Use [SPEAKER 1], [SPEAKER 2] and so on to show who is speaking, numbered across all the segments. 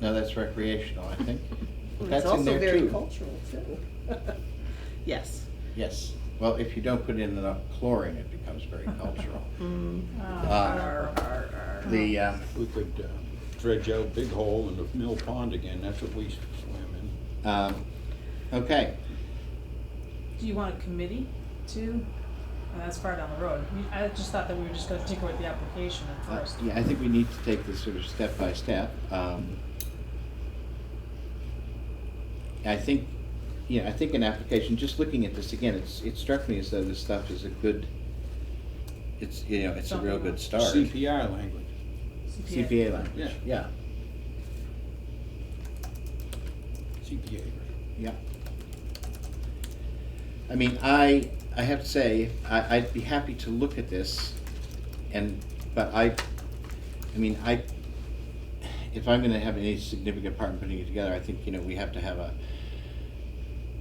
[SPEAKER 1] No, that's recreational, I think.
[SPEAKER 2] Well,
[SPEAKER 1] That's
[SPEAKER 2] It's
[SPEAKER 1] in
[SPEAKER 2] also
[SPEAKER 1] there
[SPEAKER 2] very
[SPEAKER 1] too.
[SPEAKER 2] cultural too. Yes.
[SPEAKER 1] Yes, well, if you don't put in enough chlorine, it becomes very cultural.
[SPEAKER 2] Mm.
[SPEAKER 3] Uh,
[SPEAKER 2] Arr,
[SPEAKER 1] Uh,
[SPEAKER 2] arr, arr.
[SPEAKER 1] The, um,
[SPEAKER 4] We could uh, dredge out Big Hole and the Mill Pond again, that's what we used to swim in.
[SPEAKER 1] um, okay,
[SPEAKER 3] Do you want a committee too? Uh, That's far down the road. We- I just thought that we were just gonna tinker with the application at
[SPEAKER 1] Uh,
[SPEAKER 3] first.
[SPEAKER 1] Yeah, I think we need to take this sort of step by step. Um, I think, yeah, I think an application, just looking at this again, it's, it struck me as though this stuff is a good, it's, you know, it's a real good start.
[SPEAKER 4] CPR language.
[SPEAKER 3] CPA.
[SPEAKER 1] CPA language,
[SPEAKER 4] Yeah.
[SPEAKER 1] yeah,
[SPEAKER 4] CPA, right?
[SPEAKER 1] yeah. I mean, I, I have to say, I, I'd be happy to look at this and, but I, I mean, I, if I'm gonna have any significant part in putting it together, I think, you know, we have to have a,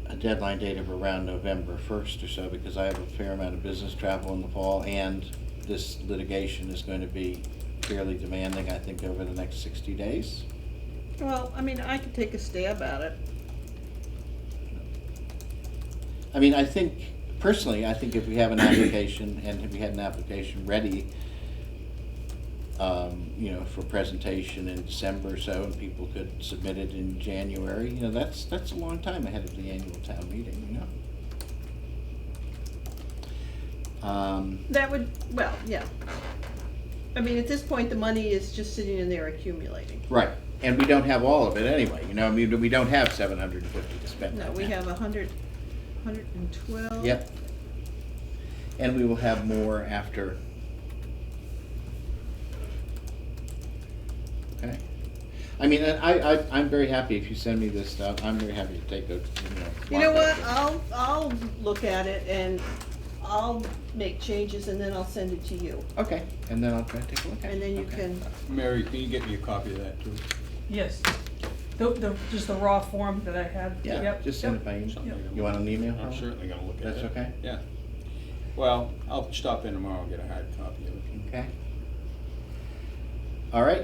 [SPEAKER 1] a deadline date of around November first or so, because I have a fair amount of business travel in the fall, and this litigation is going to be fairly demanding, I think, over the next sixty days.
[SPEAKER 2] Well, I mean, I could take a stab at it.
[SPEAKER 1] I mean, I think, personally, I think if we have an application, and if we had an application ready, um, you know, for presentation in December or so, and people could submit it in January, you know, that's, that's a long time ahead of the annual town meeting, you know? Um,
[SPEAKER 2] That would, well, yeah. I mean, at this point, the money is just sitting in there accumulating.
[SPEAKER 1] right, and we don't have all of it anyway, you know, I mean, we don't have seven hundred and fifty to spend
[SPEAKER 2] No,
[SPEAKER 1] right
[SPEAKER 2] we
[SPEAKER 1] now.
[SPEAKER 2] have a hundred, hundred and twelve.
[SPEAKER 1] Yep. And we will have more after. Okay. I mean, and I, I, I'm very happy if you send me this stuff. I'm very happy to take a, you know.
[SPEAKER 2] You know
[SPEAKER 1] walk
[SPEAKER 2] what,
[SPEAKER 1] over.
[SPEAKER 2] I'll, I'll look at it and I'll make changes and then I'll send it to you.
[SPEAKER 1] Okay, and then I'll try to take a look at it.
[SPEAKER 2] And then you
[SPEAKER 1] Okay.
[SPEAKER 2] can,
[SPEAKER 4] Mary, can you get me a copy of that too?
[SPEAKER 3] Yes. The, the, just the raw form that I had.
[SPEAKER 1] Yeah,
[SPEAKER 3] Yep,
[SPEAKER 1] just send it
[SPEAKER 3] yep.
[SPEAKER 1] by email.
[SPEAKER 4] Something I'm-
[SPEAKER 1] You want an email?
[SPEAKER 4] I'm certainly gonna look at it.
[SPEAKER 1] That's okay?
[SPEAKER 4] Yeah. Well, I'll stop in tomorrow and get a hard copy of it.
[SPEAKER 1] Okay. All right.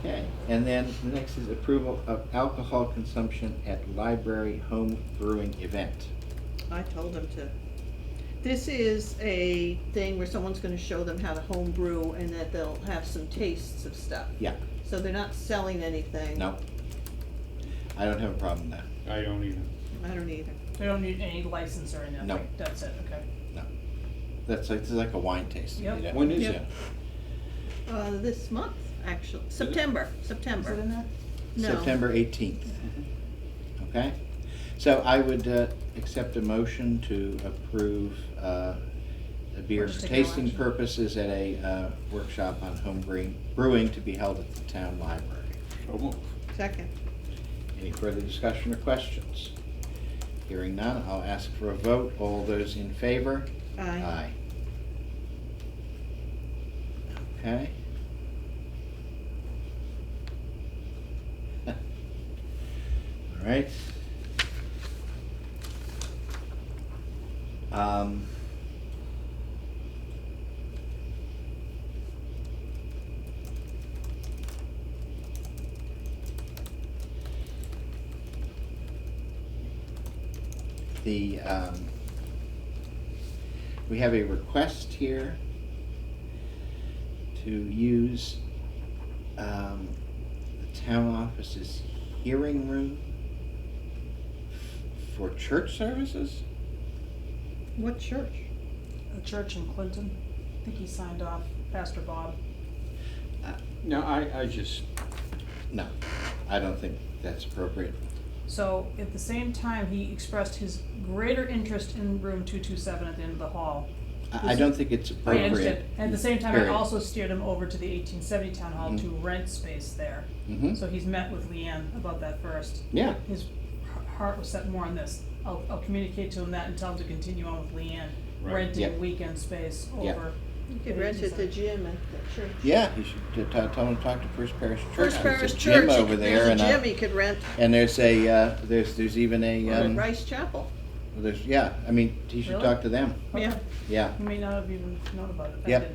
[SPEAKER 1] Okay, and then the next is approval of alcohol consumption at library home brewing event.
[SPEAKER 2] I told them to. This is a thing where someone's gonna show them how to home brew and that they'll have some tastes of stuff.
[SPEAKER 1] Yeah,
[SPEAKER 2] So they're not selling anything.
[SPEAKER 1] no. I don't have a problem with
[SPEAKER 4] I don't even,
[SPEAKER 2] I don't either.
[SPEAKER 3] They don't need any license or anything.
[SPEAKER 1] No.
[SPEAKER 3] That's it, okay.
[SPEAKER 1] that, no. That's like, it's like a wine tasting. you
[SPEAKER 3] Yep.
[SPEAKER 1] know?
[SPEAKER 4] When is
[SPEAKER 1] Yeah.
[SPEAKER 4] it?
[SPEAKER 2] Uh, this month, actually, September, September.
[SPEAKER 3] Is it in there?
[SPEAKER 2] No.
[SPEAKER 1] September eighteenth. Okay, so I would uh, accept a motion to approve uh, a beer
[SPEAKER 3] We're
[SPEAKER 1] for
[SPEAKER 3] just taking
[SPEAKER 1] tasting
[SPEAKER 3] action.
[SPEAKER 1] purposes at a uh, workshop on home brewing, brewing to be held at the town library.
[SPEAKER 4] so move.
[SPEAKER 2] Second.
[SPEAKER 1] Any further discussion or questions? Hearing none, I'll ask for a vote. All those in favor?
[SPEAKER 2] Aye.
[SPEAKER 1] Okay. All right. Um. The, um, we have a request here to use um, the town office's hearing room f- for church services?
[SPEAKER 2] What church?
[SPEAKER 3] A church in Clinton. I think he signed off, Pastor Bob.
[SPEAKER 4] No, I, I just,
[SPEAKER 1] Uh, No, I don't think that's appropriate.
[SPEAKER 3] So at the same time, he expressed his greater interest in room two two seven at the end of the hall.
[SPEAKER 1] I, I don't think it's
[SPEAKER 3] I
[SPEAKER 1] appropriate.
[SPEAKER 3] understand. At the same time, I
[SPEAKER 1] Period.
[SPEAKER 3] also steered him over to the eighteen seventy town hall
[SPEAKER 1] Mhm.
[SPEAKER 3] to rent space there.
[SPEAKER 1] Mhm.
[SPEAKER 3] So he's met with Leanne about that first.
[SPEAKER 1] Yeah,
[SPEAKER 3] His h- heart was set more on this. I'll, I'll communicate to him that and tell him to continue on with Leanne,
[SPEAKER 4] Right.
[SPEAKER 1] Yeah.
[SPEAKER 3] renting weekend space
[SPEAKER 1] Yeah.
[SPEAKER 3] over.
[SPEAKER 2] You could rent at the gym at the church.
[SPEAKER 1] yeah, you should t- t- tell them to talk to First Parish Church.
[SPEAKER 2] First
[SPEAKER 1] There's a
[SPEAKER 2] Parish
[SPEAKER 1] gym
[SPEAKER 2] Church, you
[SPEAKER 1] over
[SPEAKER 2] could-
[SPEAKER 1] there
[SPEAKER 2] there's a
[SPEAKER 1] and, uh,
[SPEAKER 2] gym you could rent
[SPEAKER 1] And there's a, uh, there's, there's even a,
[SPEAKER 2] at
[SPEAKER 1] um,
[SPEAKER 2] Rice Chapel.
[SPEAKER 1] there's, yeah, I mean, you should
[SPEAKER 3] Really?
[SPEAKER 1] talk to them,
[SPEAKER 2] Yeah.
[SPEAKER 3] Okay.
[SPEAKER 1] yeah.
[SPEAKER 3] He may not have even known about it. I
[SPEAKER 1] Yep.
[SPEAKER 3] didn't.